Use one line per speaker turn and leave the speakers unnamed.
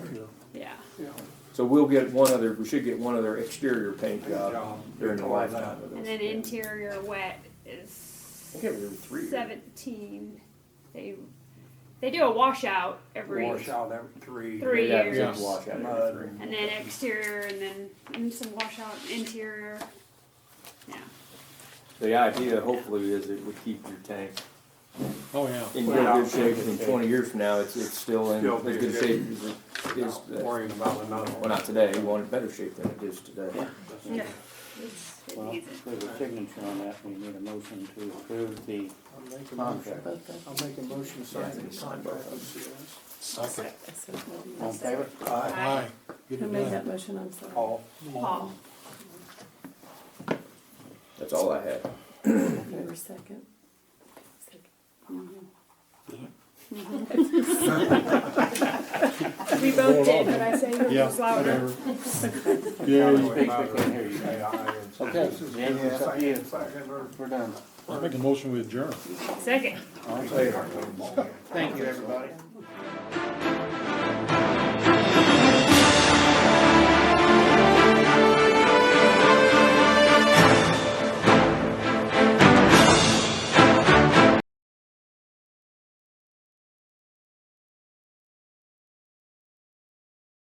So we'll get one other, we should get one other exterior paint job during the lifetime of this.
And then interior wet is
I think it was three.
seventeen. They, they do a washout every,
Wash out every three.
Three
Yeah,
years.
big washout,
Mud.
three.
and then exterior and then and some washout interior. Yeah,
The idea hopefully is it would keep your tank
Oh, yeah.
in real good shape and in twenty years from now, it's, it's still in
Still
as good
good.
shape as it is,
Not
uh,
Worrying about another
well,
one.
not today, you want it better shape than it is today.
yeah. It's- it
Well,
needs it.
there's a signature on that, we need a motion to approve the
I'll make a motion,
contract.
I'll make a motion to sign the contract with CS.
Second.
All in favor?
Aye. Get
Who
it
made
done.
that motion, I'm sorry?
All,
Paul.
That's all I have.
You were second.
We both did, but I say yours
Yeah,
was louder.
whatever. Yeah,
Speak, we can't hear you.
say aye and second.
Okay, James, it's up to you.
Second or
we're done.
I make a motion with adjourn.
Second.
All in favor?
later.
Thank you, everybody.